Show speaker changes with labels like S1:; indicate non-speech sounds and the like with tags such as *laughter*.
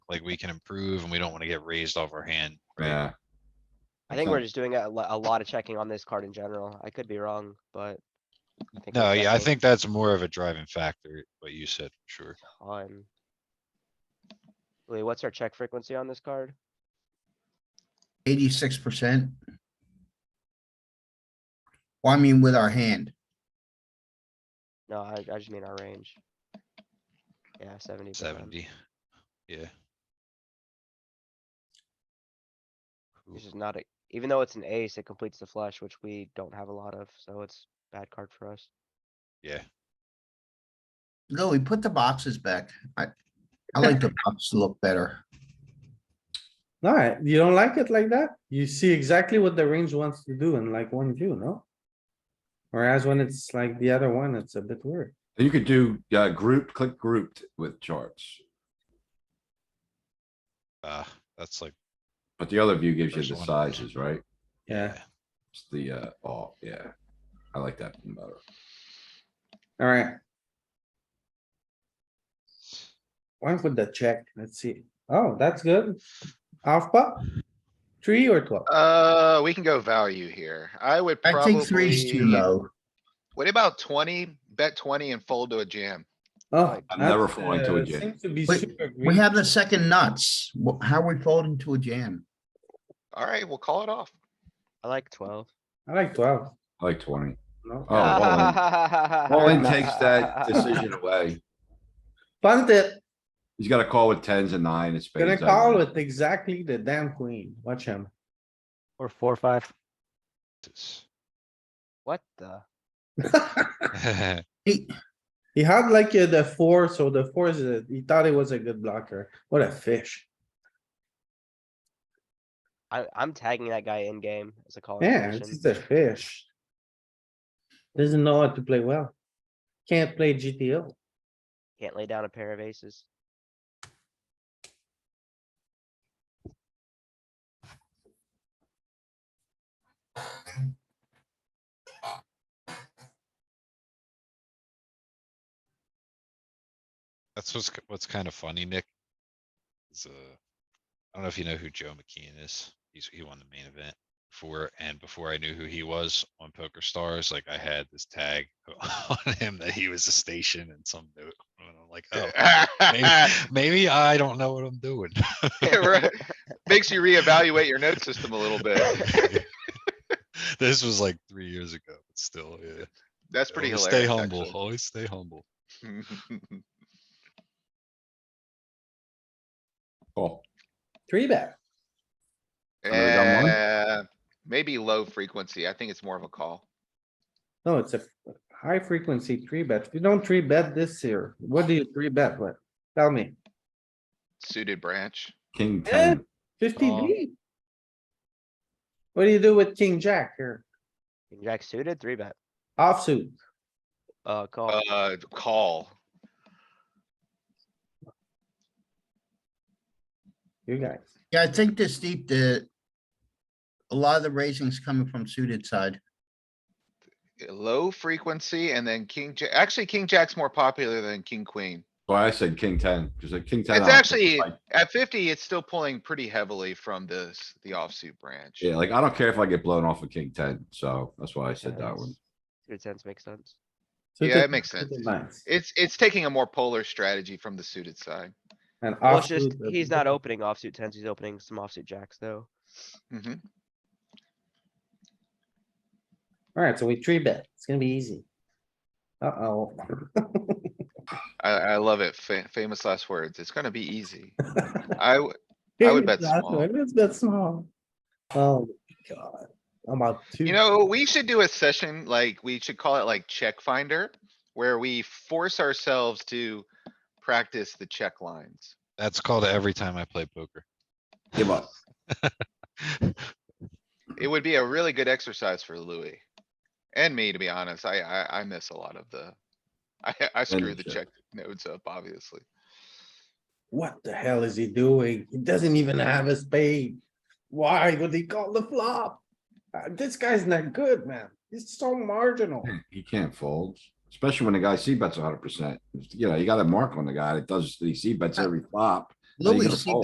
S1: like we can improve and we don't wanna get raised off our hand. right?
S2: Yeah.
S3: I think we're
S2: Okay.
S3: just doing a lot, a lot of checking on this card in general. I could be wrong, but. I think we're
S1: No, yeah, I
S3: checking
S1: think that's more of a driving factor, what you said, sure.
S3: On. Wait, what's our check frequency on this card?
S4: Eighty-six percent. Well, I mean, with our hand,
S3: No, I, I just mean our range. Yeah, seventy
S1: Seventy. Yeah. Ooh,
S3: This is not a, even though it's an ace, it completes the flush, which we don't have a lot of, so it's bad card for us.
S1: Yeah,
S4: no, we put the boxes back. I, I like the box to look better.
S5: Alright, you don't like it like that? You see exactly what the range wants to do in like one view, no? Whereas when it's like the other one, it's a bit weird.
S2: You could do, uh, group, click grouped with charts,
S1: uh, that's like,
S2: but the other view gives you
S1: First
S2: the
S1: one.
S2: sizes, right?
S5: Yeah,
S2: It's the, uh, oh, yeah. I like that one better.
S5: alright. Went with the check, let's see. Oh, that's good. Half pot? Three or twelve?
S6: Uh, we can go value here. I would
S4: I
S6: probably.
S4: think three's too low.
S6: What about twenty? Bet twenty and fold to a jam.
S5: Oh.
S2: I'm never
S5: that's,
S2: falling to a
S5: uh,
S2: jam.
S5: Seems to be
S4: Wait,
S5: super
S4: We
S5: green.
S4: have the second nuts. Wh- How are we folding to a jam?
S6: Alright, we'll call it off.
S1: *laughs*
S6: *laughs*
S3: I like twelve.
S5: I like twelve,
S2: I like
S3: *laughs*
S2: twenty.
S5: no?
S2: Oh, all in. All in takes that decision away.
S5: Punt it,
S2: He's got a call with tens and nine and spades.
S5: gonna
S2: I
S5: call
S2: wouldn't-
S5: with exactly the damn queen, watch him.
S7: Or four,
S5: *laughs*
S7: five.
S3: *laughs*
S1: this.
S3: *laughs* What the?
S4: He,
S5: He had like uh, the four, so the four is, a- he thought it was a good blocker. What a fish.
S3: I, I'm tagging that guy in game as a call.
S5: Yeah, it's just a fish. Doesn't know how to play well. Can't play GTO.
S3: Can't lay down a pair of aces.
S1: That's what's, k- what's kind of funny, Nick. Is, uh, I don't know if you know who Joe McKeon is. He's, he won the main event for, and before I knew who he was on Poker Stars, like I had this tag *laughs* on him that he was a station and some note. And I'm like, oh,
S6: *laughs*
S1: maybe, maybe I don't know what I'm doing.
S6: Right. Makes you reevaluate your note system a little bit.
S1: *laughs* This was like three years ago, but still, yeah.
S6: That's pretty
S1: Always
S6: hilarious.
S1: Stay humble,
S6: actually.
S1: always stay humble.
S2: Call.
S5: Three bet.
S2: Another dumb one?
S6: Uh, maybe low frequency. I think it's more of a call.
S5: No, it's a high frequency three bet. If you don't three bet this year, what do you three bet with? Tell me.
S6: Suited branch.
S2: King
S5: Eh?
S2: ten.
S5: Fifty
S6: Um,
S3: Oh.
S5: B? What do you do with king jack here?
S3: King Jack suited, three bet,
S5: Offsuit.
S3: uh, call.
S6: Uh, call.
S5: You guys,
S4: yeah, I think this deep, the. A lot of the raising's coming from suited side.
S6: Low frequency and then king, ja- actually, king jack's more popular than king, queen.
S2: Why I said king ten, because a king ten.
S6: It's
S2: option,
S6: actually,
S2: like-
S6: at fifty, it's still pulling pretty heavily from this, the offsuit branch.
S2: Yeah, like I don't care if I get blown off a king ten, so that's why I said that one.
S3: Good sense, makes sense.
S5: suited-
S6: Yeah, it makes sense.
S5: suited lines,
S6: It's, it's taking a more polar strategy from the suited side.
S5: and
S3: Well, it's just,
S5: offsuit, uh,
S3: he's not opening offsuit tens, he's opening some offsuit jacks though.
S6: Mhm.
S5: Alright, so we three bet. It's gonna be easy. Uh-oh.
S6: I, I love it. Fa- Famous last words. It's gonna be easy. *laughs* I, w- I would bet
S5: That's
S6: small.
S5: what- Let's bet small. Oh, my God. I'm about two.
S6: you know, we should do a session, like, we should call it like check finder, where we force ourselves to practice the check lines.
S1: That's called every time I play poker.
S2: Give up.
S1: *laughs*
S6: It would be a really good exercise for Louis. And me, to be honest, I, I, I miss a lot of the, *laughs* I, I screw the
S2: check.
S6: check nodes up, obviously.
S5: What the hell is he doing? He doesn't even have a spade. Why would he call the flop? Uh, This guy's not good, man. He's so marginal.
S2: He can't fold, especially when the guy C bets hundred percent. You know, you got a mark on the guy that does, he C bets every flop. So you
S4: Louis,
S2: gotta
S4: see,
S2: fold.